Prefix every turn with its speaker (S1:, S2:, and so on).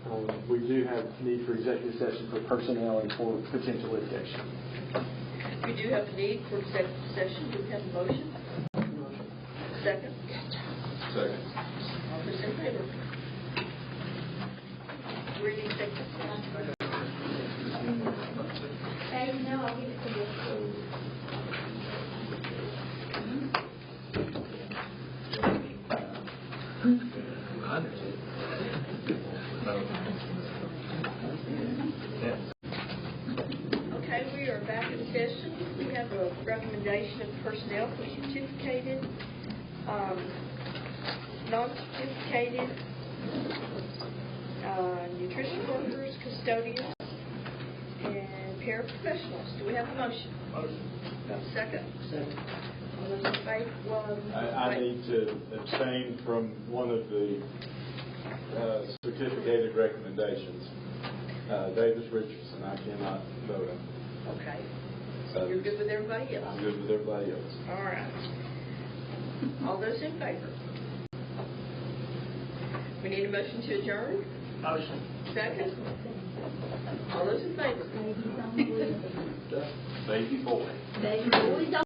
S1: um, we do have need for executive session for personnel and for potential litigation.
S2: We do have a need for executive session, do we have a motion? Second?
S3: Second.
S2: All those in favor? We're in executive session.
S4: Hey, no, I'll give it to you.
S2: Okay, we are back in session. We have a recommendation of personnel for certificated, um, non-certificated, uh, nutrition workers, custodians, and paraprofessionals. Do we have a motion? Motion. Second? Second. All those in favor? Well,
S3: I, I need to abstain from one of the uh, certificated recommendations. Uh, Davis Richardson, I cannot vote on.
S2: Okay.
S3: So-
S2: You're good with everybody else?
S3: I'm good with everybody else.
S2: All right. All those in favor? We need a motion to adjourn? Motion. Second? All those in favor?
S4: Thank you so much.
S3: Thank you, boy.
S4: Thank you.